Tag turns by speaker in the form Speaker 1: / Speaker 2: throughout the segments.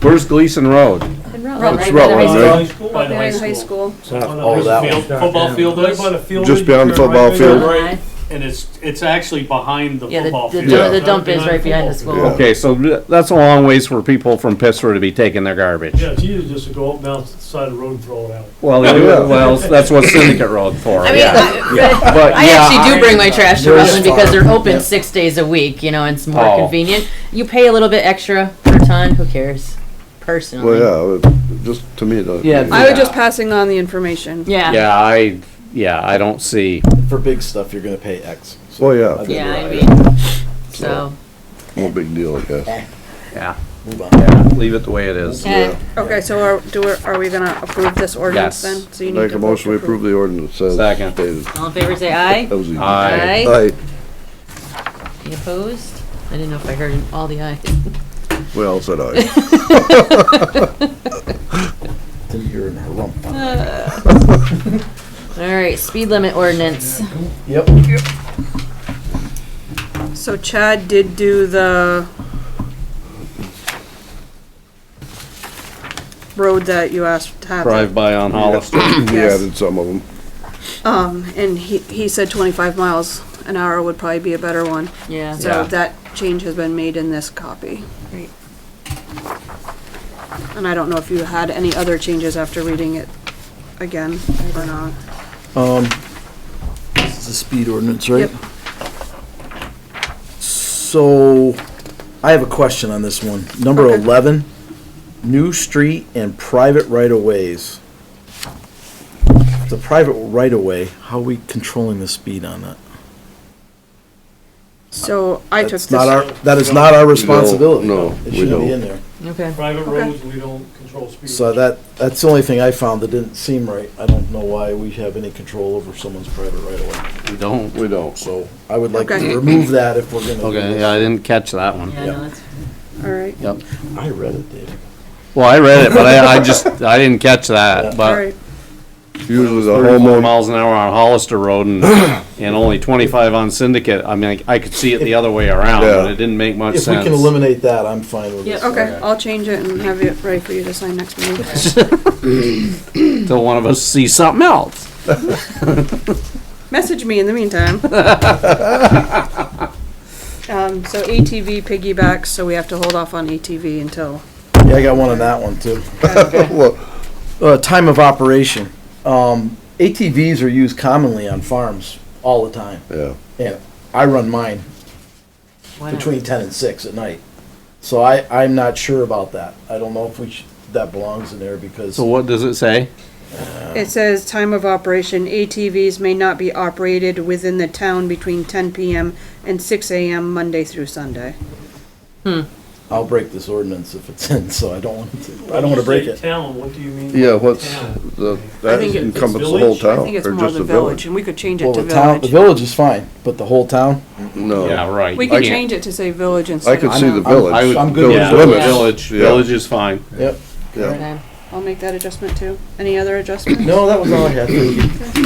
Speaker 1: Where's Gleason Road?
Speaker 2: And
Speaker 3: Rob,
Speaker 2: Rutland.
Speaker 1: It's
Speaker 3: right by the
Speaker 1: Rutland, right?
Speaker 3: high school.
Speaker 2: Up there in
Speaker 4: Behind the
Speaker 2: high school.
Speaker 5: Oh, that
Speaker 4: Field-
Speaker 5: one.
Speaker 4: Football field
Speaker 6: Right
Speaker 4: is,
Speaker 6: by the field.
Speaker 1: Just
Speaker 6: you
Speaker 1: beyond the
Speaker 6: turn
Speaker 1: football
Speaker 6: right
Speaker 1: field.
Speaker 6: there.
Speaker 3: Right.
Speaker 4: and it's, it's actually behind the
Speaker 3: Yeah, the,
Speaker 4: football
Speaker 3: the,
Speaker 4: field.
Speaker 3: where the
Speaker 1: Yeah.
Speaker 3: dump is right behind the
Speaker 1: Yeah.
Speaker 3: school.
Speaker 1: Okay, so th- that's a long ways for people from Pittsburgh to be taking their garbage.
Speaker 6: Yeah, it's easy just to go up down the side of the road and throw it out.
Speaker 1: Well, they do, well, that's what Syndicate Road for,
Speaker 3: I mean,
Speaker 1: yeah.
Speaker 3: I,
Speaker 1: But
Speaker 3: I
Speaker 1: yeah,
Speaker 3: actually do bring my trash to
Speaker 1: Yours
Speaker 3: Rutland because they're open six days a week, you know, and it's more
Speaker 1: Oh.
Speaker 3: convenient. You pay a little bit extra per ton, who cares? Personally.
Speaker 5: Well, yeah, it- just to me, that.
Speaker 7: Yeah,
Speaker 2: I was just passing on the information.
Speaker 3: yeah.
Speaker 1: Yeah, I, yeah, I don't see,
Speaker 7: For big stuff, you're gonna pay X.
Speaker 5: Well, yeah,
Speaker 7: Okay.
Speaker 3: Yeah, I mean, so,
Speaker 5: no big deal, I guess.
Speaker 1: yeah,
Speaker 7: Move on.
Speaker 1: yeah, leave it the way it is.
Speaker 3: okay.
Speaker 2: Okay, so are, do, we- are we gonna approve this ordinance
Speaker 1: Yes.
Speaker 2: then? So you need
Speaker 5: Make
Speaker 2: to
Speaker 5: a
Speaker 2: vote
Speaker 5: motion,
Speaker 2: to
Speaker 5: we approve the ordinance as
Speaker 1: Second.
Speaker 5: stated.
Speaker 3: all in favor say aye.
Speaker 5: That
Speaker 1: Oh.
Speaker 5: was easy.
Speaker 1: Aye.
Speaker 5: Aye,
Speaker 3: Any opposed? I didn't know if I heard all the ayes.
Speaker 5: we all said aye.
Speaker 7: You're in her rump.
Speaker 3: All right, speed limit ordinance.
Speaker 7: Yep.
Speaker 2: So Chad did do the road that you asked to have.
Speaker 1: Drive by on Hollister.
Speaker 5: We
Speaker 2: Yes.
Speaker 5: added some of them.
Speaker 2: Um, and he, he said twenty-five miles an hour would probably be a better one.
Speaker 3: Yeah.
Speaker 2: So
Speaker 1: Yeah.
Speaker 2: that change has been made in this copy.
Speaker 3: Great.
Speaker 2: And I don't know if you had any other changes after reading it again or not.
Speaker 7: It's the speed ordinance, right?
Speaker 2: Yep.
Speaker 7: So, I have a question on this one. Number
Speaker 2: Okay.
Speaker 7: 11, new street and private right-of-ways. The private right-of-way, how are we controlling the speed on that?
Speaker 2: So I took
Speaker 7: That's not
Speaker 2: this,
Speaker 7: our, that is not our responsibility.
Speaker 5: no,
Speaker 7: It
Speaker 5: we
Speaker 7: shouldn't be
Speaker 5: don't.
Speaker 7: in there.
Speaker 3: Okay.
Speaker 6: Private roads, we don't control speed.
Speaker 7: So that, that's the only thing I found that didn't seem right. I don't know why we have any control over someone's private right-of-way.
Speaker 1: We don't.
Speaker 5: We don't.
Speaker 7: So, I would like
Speaker 2: Okay.
Speaker 7: to remove that if we're gonna do
Speaker 1: Okay,
Speaker 7: this.
Speaker 1: yeah, I didn't catch that one.
Speaker 3: Yeah, no, that's,
Speaker 2: all right,
Speaker 1: Yep.
Speaker 7: I read it, Dave.
Speaker 1: Well, I read it, but I, I just, I didn't catch that,
Speaker 2: all
Speaker 1: but
Speaker 2: right.
Speaker 5: Usually the
Speaker 1: thirty-four
Speaker 5: homeowner,
Speaker 1: miles an hour on Hollister Road and, and only twenty-five on Syndicate, I mean, I could see it the other way around, but
Speaker 5: Yeah.
Speaker 1: it didn't make much
Speaker 7: If we
Speaker 1: sense.
Speaker 7: can eliminate that, I'm fine with this.
Speaker 2: Okay, I'll change it and have it ready for you to sign next meeting.
Speaker 1: Till one of us sees something else.
Speaker 2: Message me in the meantime. Um, so ATV piggybacks, so we have to hold off on ATV until,
Speaker 7: Yeah, I got one on that one too.
Speaker 5: Well,
Speaker 7: Uh, time of operation. Um, ATVs are used commonly on farms all the time.
Speaker 5: yeah,
Speaker 7: And I run mine
Speaker 3: why not?
Speaker 7: between ten and six at night. So I, I'm not sure about that. I don't know if we should, that belongs in there because,
Speaker 1: So what does it say?
Speaker 2: it says time of operation, ATVs may not be operated within the town between ten PM and six AM Monday through Sunday.
Speaker 7: I'll break this ordinance if it's in, so I don't want to, I don't want to break
Speaker 6: When you
Speaker 7: it.
Speaker 6: say Town, what do you mean? by
Speaker 5: yeah, what's,
Speaker 6: town?
Speaker 5: the-
Speaker 2: I
Speaker 5: that
Speaker 2: think it- it's
Speaker 5: encompasses the whole
Speaker 6: village.
Speaker 5: town,
Speaker 2: I think it's
Speaker 5: Oh, or
Speaker 2: more
Speaker 5: just
Speaker 2: the village, and we could change
Speaker 7: Well,
Speaker 2: it to
Speaker 7: the town, the
Speaker 2: village.
Speaker 7: village is fine, but the whole town?
Speaker 5: No.
Speaker 1: Yeah, right.
Speaker 2: We
Speaker 1: you
Speaker 2: could
Speaker 1: can't-
Speaker 2: change it to say village
Speaker 5: I
Speaker 2: instead
Speaker 5: could
Speaker 2: of
Speaker 5: see the
Speaker 2: town.
Speaker 5: village.
Speaker 1: I would-
Speaker 7: I'm good
Speaker 5: Village
Speaker 1: Yeah,
Speaker 7: with
Speaker 5: limits.
Speaker 3: that.
Speaker 1: village,
Speaker 5: Yeah.
Speaker 1: village is fine.
Speaker 7: Yep.
Speaker 5: Yeah.
Speaker 3: Okay.
Speaker 2: I'll make that adjustment too. Any other adjustments?
Speaker 7: No, that was all I had. Thank you.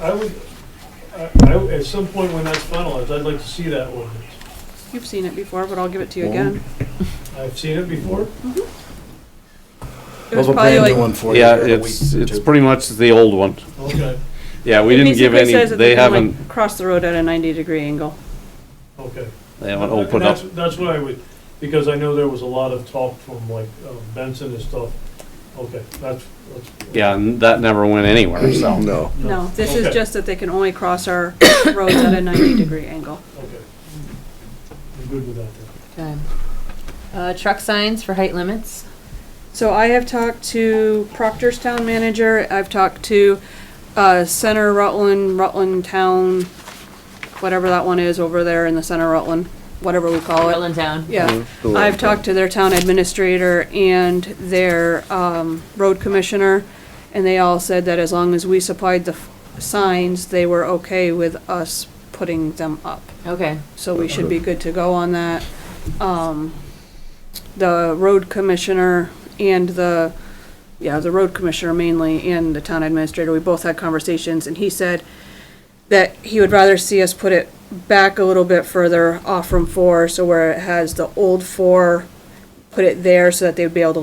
Speaker 6: I would, I, I- at some point when that's finalized, I'd like to see that ordinance.
Speaker 2: You've seen it before, but I'll give it to you again.
Speaker 6: I've seen it before.
Speaker 2: It
Speaker 7: Well,
Speaker 2: was
Speaker 7: the
Speaker 2: probably
Speaker 7: brand new
Speaker 2: like,
Speaker 7: one for you
Speaker 1: Yeah,
Speaker 7: here in a
Speaker 1: it's,
Speaker 7: week or
Speaker 1: it's
Speaker 7: two.
Speaker 1: pretty much the old one.
Speaker 6: Okay,
Speaker 1: Yeah, we
Speaker 2: it
Speaker 1: didn't give
Speaker 2: basically
Speaker 1: any,
Speaker 2: says that
Speaker 1: they
Speaker 2: they can
Speaker 1: haven't,
Speaker 2: like cross the road at a ninety degree angle.
Speaker 6: okay.
Speaker 1: they haven't
Speaker 6: And
Speaker 1: opened up.
Speaker 6: that's- That's what I would, because I know there was a lot of talk from like uh, Benson and stuff. Okay, that's, that's.
Speaker 1: Yeah, and that never went anywhere, so.
Speaker 5: No,
Speaker 2: No, this is
Speaker 6: Okay.
Speaker 2: just that they can only cross our roads at a ninety degree angle.
Speaker 6: Okay. I'm good with that then.
Speaker 3: Okay. Uh, truck signs for height limits.
Speaker 2: So I have talked to Proctor's town manager, I've talked to, uh, Center Rutland, Rutland Town, whatever that one is over there in the Center Rutland, whatever we call it.
Speaker 3: Portland town.
Speaker 2: Yeah,
Speaker 5: the
Speaker 2: I've
Speaker 5: Rutland
Speaker 2: talked to their town administrator and their, um, road commissioner, and they all said that as long as we supplied the f- signs, they were okay with us putting them up.
Speaker 3: Okay.
Speaker 2: so we should be good to go on that. Um, the road commissioner and the, yeah, the road commissioner mainly and the town administrator, we both had conversations and he said that he would rather see us put it back a little bit further off from four, so where it has the old four, put it there so that they would be able to